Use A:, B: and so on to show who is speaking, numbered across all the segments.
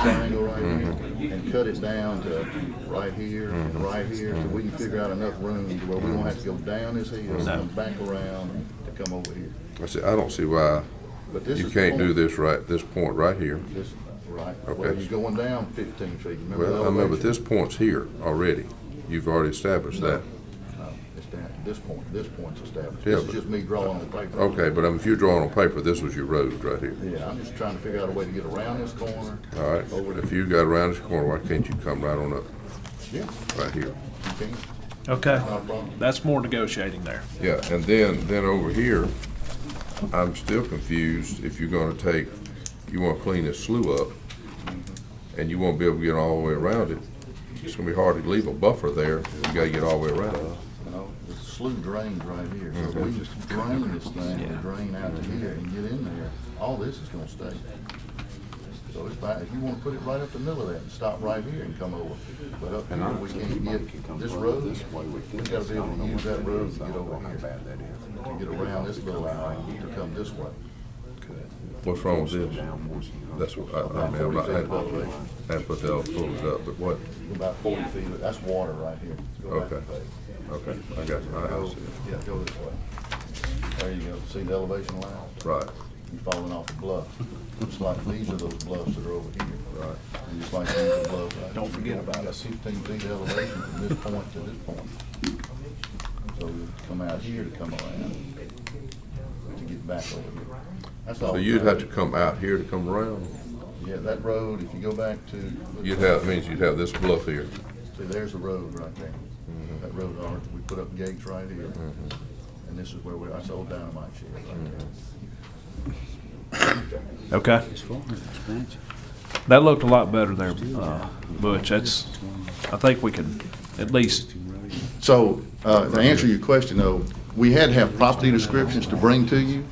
A: triangle right
B: Mm-hmm.
A: here and cut it down to right here and right here, so we can figure out enough room to where we don't have to go down this hill
B: Mm-hmm.
A: and come back around to come over here.
B: I see, I don't see why
A: But this
B: you
A: is the
B: can't do
A: point.
B: this right, this point right here.
A: This, right, well,
B: Okay.
A: he's going down fifteen feet, remember the
B: Well, I mean, but
A: elevation?
B: this point's here already. You've already established that.
A: No, It's down, at this point, this point's established,
B: Yeah,
A: this is
B: but-
A: just me drawing on paper.
B: Okay, but I mean, if you're drawing on paper, this was your road right here.
A: Yeah, I'm just trying to figure out a way to get around this corner.
B: All right,
A: Over
B: if
A: to,
B: you got around this corner, why can't you come right on up,
A: yeah,
B: right here?
A: you can,
C: Okay,
A: not a problem.
C: that's more negotiating there.
B: Yeah, and then, then over here, I'm still confused if you're gonna take, you wanna clean this slough up, and you won't be able to get all the way around it. It's gonna be hard to leave a buffer there, you gotta get all the way around it.
A: You know, the slough drains right here, so if we just drain this thing, and drain out to here and get in there, all this is gonna stay. So if, I- if you wanna put it right up the middle of that, and stop right here and come over, but up here, we can't get this road, we gotta be able to use that road to get over here, to get around this little alley, to come this way.
B: What's wrong with this? That's what, I, I mean, I'm not, I hadn't- I hadn't put that, all pulled it up, but what,
A: About forty feet, that's water right here. Go back
B: Okay.
A: a page.
B: okay, I got you, I I
A: Go,
B: see
A: yeah, go this way. There you go, see the elevation line?
B: it. Right,
A: You're falling off a bluff. It's like these are those bluffs that are over here.
B: Right.
A: And just like these are bluffs. right
C: Don't
A: here.
C: forget about
A: That's Fifteen feet elevation from this point to this point. So you come out here to come around, to get back over here. That's all.
B: so you'd have to come out here to come around?
A: Yeah, that road, if you go back to.
B: You'd have, means you'd have this bluff here.
A: See, there's the road right there.
B: Mm-hmm.
A: That road, on it, we put up gates right here. And this is where we, that's old dynamite shed right there.
C: Okay, that looked a lot better there, uh, Butch. That's, I think we can at least,
A: So, uh, to answer your question though, we had to have property descriptions to bring to you,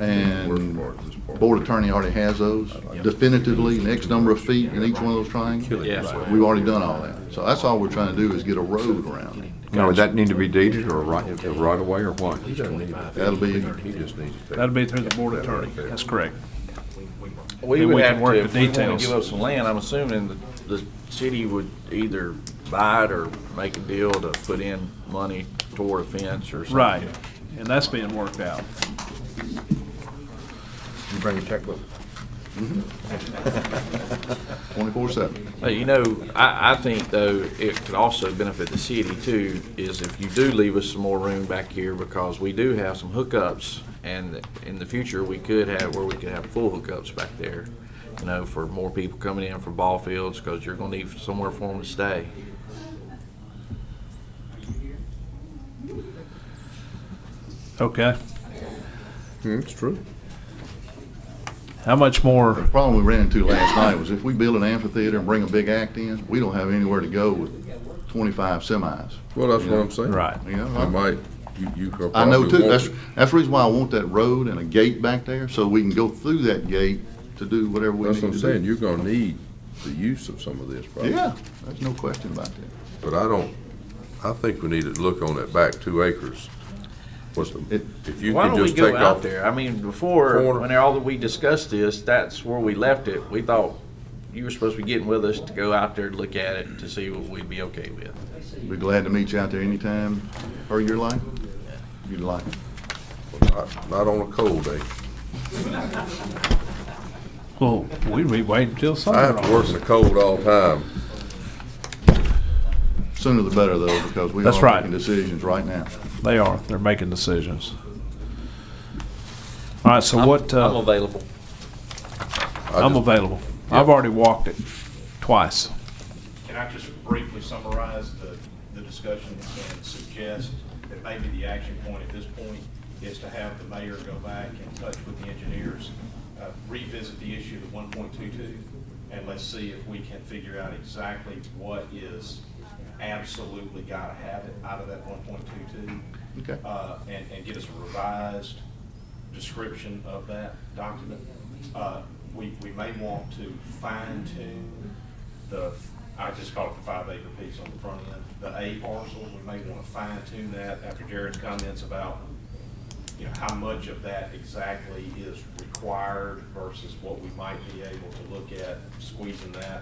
A: and
B: Or this part.
A: board attorney already has those definitively, and X number of feet in each one of those triangles.
D: Yeah.
A: We've already done all that. So that's all we're trying to do is get a road around it.
D: Now, would that need to be deeded or right, a right away or what?
B: He doesn't need it.
A: That'll be,
B: He just needs to take.
C: that'd be through the board attorney. That's correct.
E: We
C: Then
E: would
C: we can
E: have
C: work
E: to,
C: the
E: if we want
C: details.
E: to give up some land, I'm assuming the, the city would either buy it or make a deal to put in money toward a fence or something.
C: Right, and that's being worked out.
B: You bring your checkbook?
A: twenty-four seven.
E: Hey, You know, I, I think though, it could also benefit the city too, is if you do leave us some more room back here, because we do have some hookups, and in the future, we could have, where we could have full hookups back there, you know, for more people coming in for ball fields, because you're gonna need somewhere for them to stay.
C: Okay,
B: It's true.
C: how much more,
A: The problem we ran into last night was if we build an amphitheater and bring a big act in, we don't have anywhere to go with twenty-five semis.
B: Well, that's what I'm saying.
C: right,
A: You know,
B: I might, you, you could
A: I know
B: probably
A: too,
B: want
A: that's,
B: it.
A: that's the reason why I want that road and a gate back there, so we can go through that gate to do whatever we need
B: That's
A: to do.
B: what I'm saying, you're gonna need the use of some of this probably.
A: Yeah, there's no question about that.
B: But I don't, I think we need to look on that back two acres. What's the,
A: It-
B: if you
E: Why
B: could
E: don't we
B: just take
E: go out
B: off.
E: there? I mean, before,
B: Corner.
E: when all that we discussed this, that's where we left it. We thought you were supposed to be getting with us to go out there to look at it, to see what we'd be okay with.
A: Be glad to meet you out there anytime, or your life, you'd like. it.
B: Not not on a cold day.
C: well, we'd be waiting till
B: I have to
C: summer.
B: work in the cold all the time.
A: Sooner the better though, because we
C: That's
A: are
C: right.
A: making decisions right now.
C: They are, they're making decisions. All right, so what,
E: I'm
C: uh,
E: available.
B: I
C: I'm
B: just-
C: available. I've already walked it twice.
F: Can I just briefly summarize the, the discussion and suggest that maybe the action point at this point is to have the mayor go back in touch with the engineers, uh, revisit the issue of one point two two, and let's see if we can figure out exactly what is absolutely gotta have it out of that one point two two.
A: Okay.
F: Uh, and, and get us a revised description of that document. Uh, we, we may want to fine tune the, I just call it the five acre piece on the front end, the A parcel, we may want to fine tune that after Jared's comments about you know, how much of that exactly is required versus what we might be able to look at squeezing that